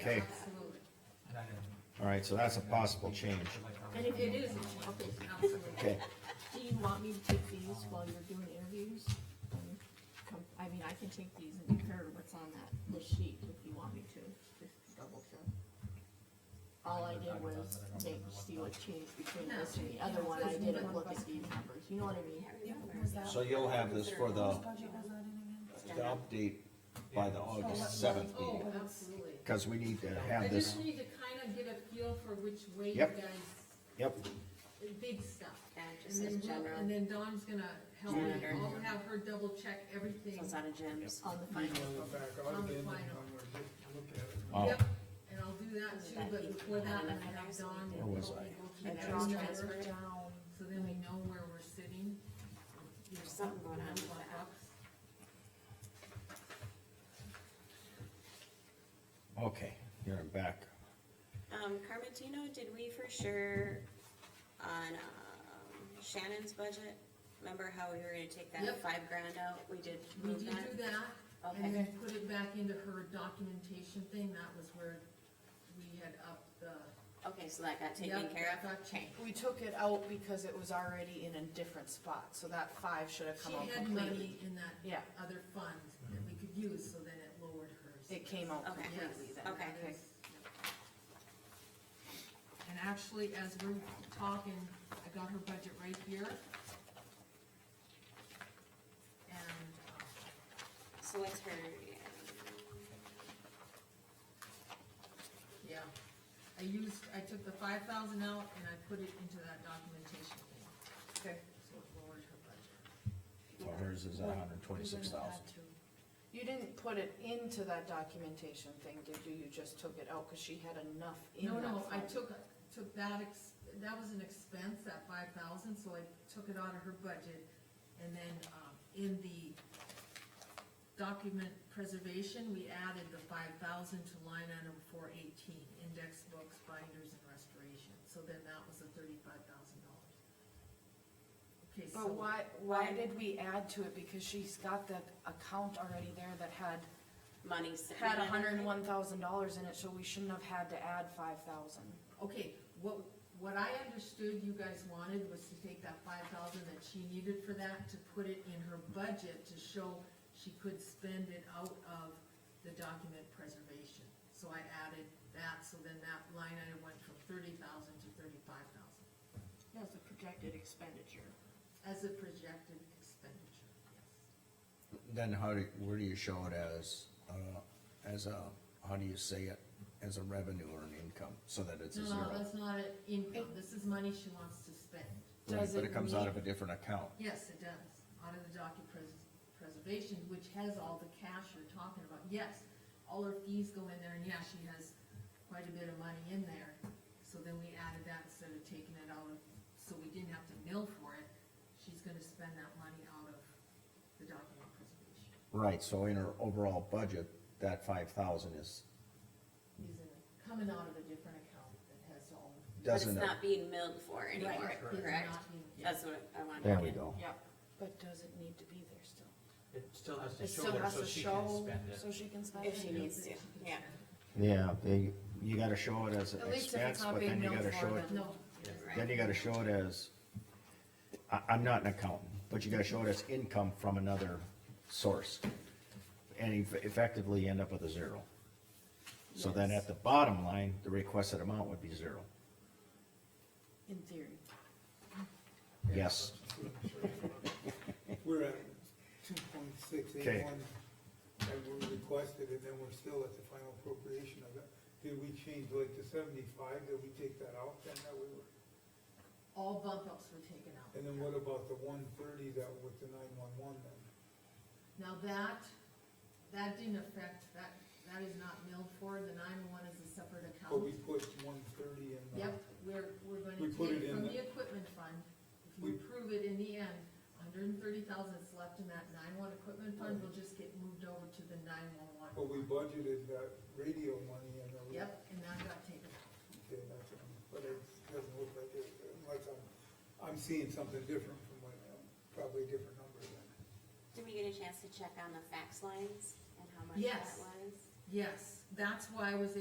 Okay, Absolutely. all right, so that's a possible change. And if it is, it's, okay, absolutely. Okay, Do you want me to take these while you're doing interviews? Um, come- I mean, I can take these and compare to what's on that, this sheet if you want me to, just double check. All I did was make, see what changed between this and the other one, I didn't look at these numbers, you know what I mean? so you'll have this for the, Budget was that in again? the update by the August seventh Oh, meeting, absolutely. because we need to I have this, just need to kind of get a feel for which way you Yep. guys, yep, the big stuff. Yeah, it just And says then, we'll- general, and then Dawn's gonna help me, Janitor. I'll have her double check everything so it's out of gyms. On the Email final, it back out again, and I'm gonna get- look at it. oh, Yep, and I'll do that too, That but you- before that, Yeah. I have Dawn. Where was help I? me go through I that draw number, transfer. down, So then we know where we're sitting. You know, There's something going on with that. okay, here I'm back. Um, Carmentino, did we for sure on, um, Shannon's budget? Remember how we were gonna take that Yep. five grand out? We did We move did that? do that, Okay. And then put it back into her documentation thing, that was where we had up the. Okay, so that got taken Yep, care that of? got changed. We took it out because it was already in a different spot, so that five should have She come out had completely. money in that Yeah, other fund that we could use, so then it lowered hers. it came out Okay. completely then. Okay. And actually, as we're talking, I got her budget right here. And, uh, So what's her, um, yeah, yeah, I used, I took the five thousand out and I put it into that documentation thing, Okay. so it lowered her budget. So hers is hundred and twenty-six thousand. You didn't put it into that documentation thing, did you? You just took it out because she had enough in No, that. no, I fund. took, took that ex, that was an expense, that five thousand, so I took it out of her budget. And then, um, in the document preservation, we added the five thousand to line item four eighteen, index books, binders and restoration. So then that was the thirty-five thousand dollars. Okay, so. But why, why did we add to it? Because she's got that account already there that had, money sitting? had in it? hundred and one thousand dollars in it, so we shouldn't have had to add five thousand. Okay, what, what I understood you guys wanted was to take that five thousand that she needed for that, to put it in her budget to show she could spend it out of the document preservation. So I added that, so then that line item went from thirty thousand to thirty-five thousand that's a projected expenditure. as a projected expenditure, yes. Then how do, where do you show it as, uh, as a, how do you say it, as a revenue or an income, so that it's a No, no, zero? that's not an income, this is money she wants to spend. Right, Does But it it comes out mean- of a different account, Yes, it does, out of the docket pres- preservation, which has all the cash you're talking about, yes, all her fees go in there, and yeah, she has quite a bit of money in there, so then we added that instead of taking it out of, so we didn't have to mill for it, she's gonna spend that money out of the document preservation, right, so in her overall budget, that five thousand is, is it coming out of a different account that has all. But it's doesn't it? not being milled for anymore, Right, it's correct? not being- That's what I wanted. to There we get. go. Yep, but does it need to be there still? It still has to It show still there has so to she can show, spend it. so she can spend it. If she needs to, yeah. Yeah, they, you gotta show it as an At least if it's expense, not but then being you known gotta for, show it, then- No, right. then you gotta show it as, I, I'm not an accountant, but you gotta show it as income from another source. And eff- effectively end up with a zero. So then Yes. at the bottom line, the requested amount would be zero. In theory. Yes, We're at two point six Okay. eight one, that we requested, and then we're still at the final appropriation of it. Did we change like to seventy-five, did we take that out, then that we were, all bump ups were taken out. and then what about the one thirty that with the nine-one-one then? Now that, that didn't affect, that, that is not milled for, the nine-one is a separate But we account. put one thirty uh, in the. Um. Yep, we're, we're gonna We put take it in from the- the equipment fund, if We- you approve it in the end, hundred and thirty thousand is left in that nine-one equipment fund, will just get moved over to the nine-one-one. But we budgeted that radio money and the. Yep, and that got taken out. Okay, that's, um, but it doesn't look like it, unless I'm, I'm seeing something different from what, um, probably a different number then. Did we get a chance to check on the fax lines and how much that Yes. was? Yes, that's why I was